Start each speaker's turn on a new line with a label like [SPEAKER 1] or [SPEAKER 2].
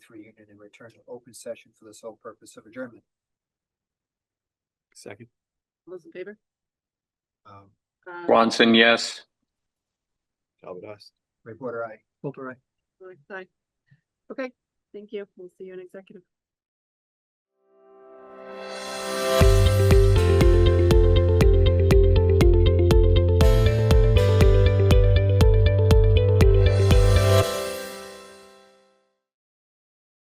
[SPEAKER 1] reunion and return to open session for the sole purpose of adjournment.
[SPEAKER 2] Second.
[SPEAKER 3] All Those in favor?
[SPEAKER 1] Um,
[SPEAKER 3] Uh,
[SPEAKER 4] Bronson, yes.
[SPEAKER 2] Talbot, us.
[SPEAKER 1] reporter, I.
[SPEAKER 2] Coulter, aye.
[SPEAKER 3] Lord, aye. Okay, thank you. We'll see you in executive.